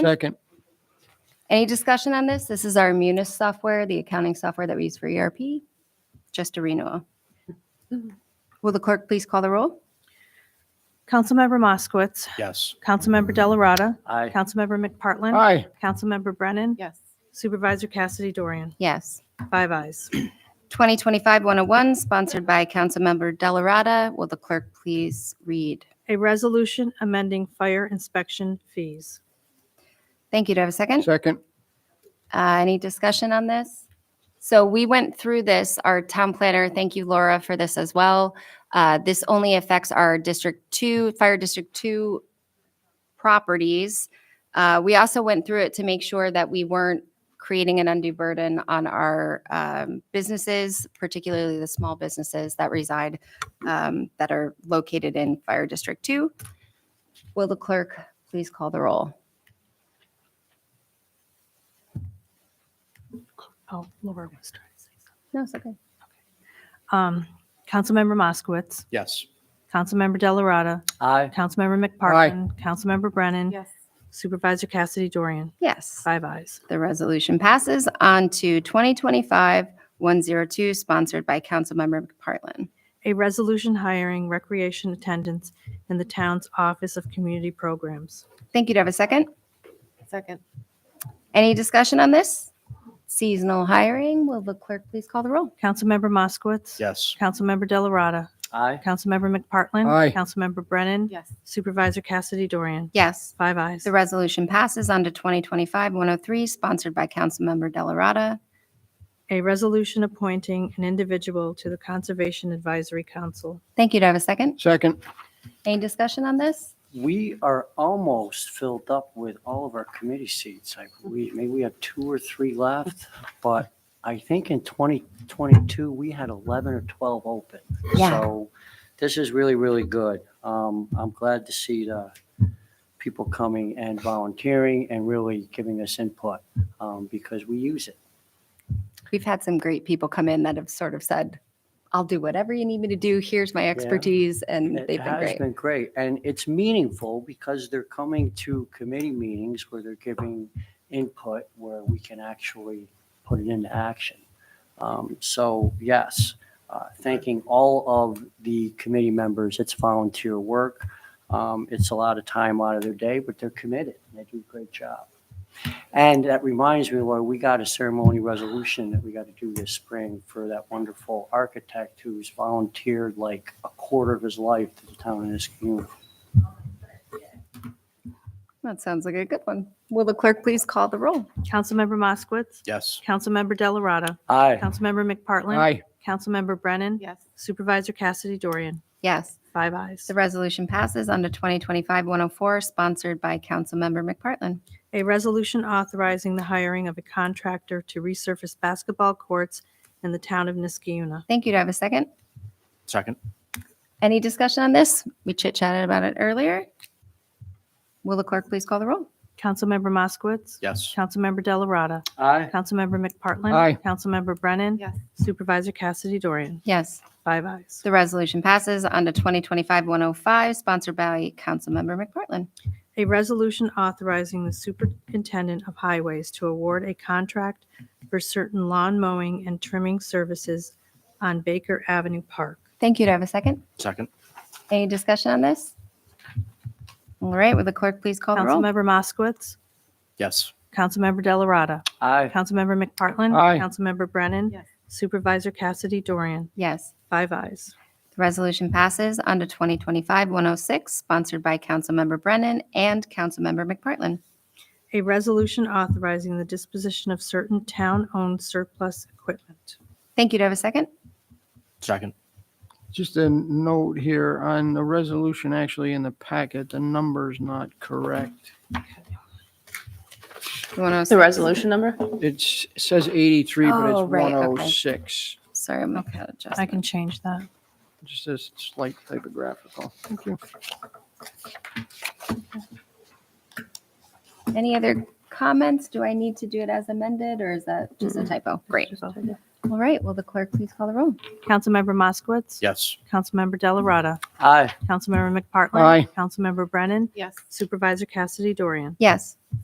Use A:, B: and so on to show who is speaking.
A: Second.
B: Any discussion on this? This is our Munis software, the accounting software that we use for ERP, just a renewal. Will the clerk please call the roll?
C: Councilmember Moskowitz.
A: Yes.
C: Councilmember Delarada.
A: Aye.
C: Councilmember McPartlin.
A: Aye.
C: Councilmember Brennan.
D: Yes.
C: Supervisor Cassidy Dorian.
B: Yes.
C: Five ayes.
B: 2025-101, sponsored by Councilmember Delarada. Will the clerk please read?
C: A resolution amending fire inspection fees.
B: Thank you. Do I have a second?
A: Second.
B: Uh, Any discussion on this? So we went through this, our town planner, thank you Laura for this as well. Uh, This only affects our District 2, Fire District 2 properties. Uh, We also went through it to make sure that we weren't creating an undue burden on our um, businesses, particularly the small businesses that reside, um, that are located in Fire District 2. Will the clerk please call the roll?
C: Oh, Laura was trying to say
B: No, it's okay.
C: something. Um, Councilmember Moskowitz.
A: Yes.
C: Councilmember Delarada.
A: Aye.
C: Councilmember McPartlin. Councilmember Brennan.
D: Yes.
C: Supervisor Cassidy Dorian.
B: Yes.
C: Five ayes.
B: The resolution passes on to 2025-102, sponsored by Councilmember McPartlin.
C: A resolution hiring recreation attendants in the town's Office of Community Programs.
B: Thank you. Do I have a second?
D: Second.
B: Any discussion on this? Seasonal hiring. Will the clerk please call the roll?
C: Councilmember Moskowitz.
A: Yes.
C: Councilmember Delarada.
A: Aye.
C: Councilmember McPartlin.
A: Aye.
C: Councilmember Brennan.
D: Yes.
C: Supervisor Cassidy Dorian.
B: Yes.
C: Five ayes.
B: The resolution passes on to 2025-103, sponsored by Councilmember Delarada.
C: A resolution appointing an individual to the Conservation Advisory Council.
B: Thank you. Do I have a second?
A: Second.
B: Any discussion on this?
E: We are almost filled up with all of our committee seats. I believe, maybe we have two or three left, but I think in 2022, we had 11 or 12 open.
B: Yeah.
E: So this is really, really good. Um, I'm glad to see the people coming and volunteering and really giving us input um, because we use it.
B: We've had some great people come in that have sort of said, I'll do whatever you need me to do. Here's my expertise. And
E: It
B: they've been
E: has
B: great.
E: been great, and it's meaningful because they're coming to committee meetings where they're giving input where we can actually put it into action. Um, So yes, uh, thanking all of the committee members. It's volunteer work. Um, It's a lot of time out of their day, but they're committed. and They do a great job. And that reminds me, Laura, we got a ceremony resolution that we got to do this spring for that wonderful architect who's volunteered like a quarter of his life to the town of Niskuna.
B: That sounds like a good one. Will the clerk please call the roll?
C: Councilmember Moskowitz.
A: Yes.
C: Councilmember Delarada.
E: Aye.
C: Councilmember McPartlin.
A: Aye.
C: Councilmember Brennan.
D: Yes.
C: Supervisor Cassidy Dorian.
B: Yes.
C: Five ayes.
B: The resolution passes under 2025-104, sponsored by Councilmember McPartlin.
C: A resolution authorizing the hiring of a contractor to resurface basketball courts in the town of Niskiuna.
B: Thank you. Do I have a second?
A: Second.
B: Any discussion on this? We chit-chatted about it earlier. Will the clerk please call the roll?
C: Councilmember Moskowitz.
A: Yes.
C: Councilmember Delarada.
E: Aye.
C: Councilmember McPartlin.
A: Aye.
C: Councilmember Brennan.
D: Yes.
C: Supervisor Cassidy Dorian.
B: Yes.
C: Five ayes.
B: The resolution passes under 2025-105, sponsored by Councilmember McPartlin.
C: A resolution authorizing the superintendent of highways to award a contract for certain lawn mowing and trimming services on Baker Avenue Park.
B: Thank you. Do I have a second?
A: Second.
B: Any discussion on this? All right, will the clerk please call the roll?
C: Councilmember Moskowitz.
A: Yes.
C: Councilmember Delarada.
E: Aye.
C: Councilmember McPartlin.
A: Aye.
C: Councilmember Brennan.
D: Yes.
C: Supervisor Cassidy Dorian.
B: Yes.
C: Five ayes.
B: The resolution passes under 2025-106, sponsored by Councilmember Brennan and Councilmember McPartlin.
C: A resolution authorizing the disposition of certain town-owned surplus equipment.
B: Thank you. Do I have a second?
A: Second. Just a note here on the resolution actually in the packet, the number's not correct.
B: You want
D: The
B: to?
D: resolution number?
A: It's- It says 83, but
B: Oh,
A: it's
B: right, okay.
A: 106.
B: Sorry, I'm okay. Adjustment.
C: I can change that.
A: Just a slight typographical. Thank you.
B: Any other comments? Do I need to do it as amended, or is that just a typo? Great. All right. Will the clerk please call the roll?
C: Councilmember Moskowitz.
A: Yes.
C: Councilmember Delarada.
E: Aye.
C: Councilmember McPartlin.
A: Aye.
C: Councilmember Brennan.
D: Yes.
C: Supervisor Cassidy Dorian.
B: Yes.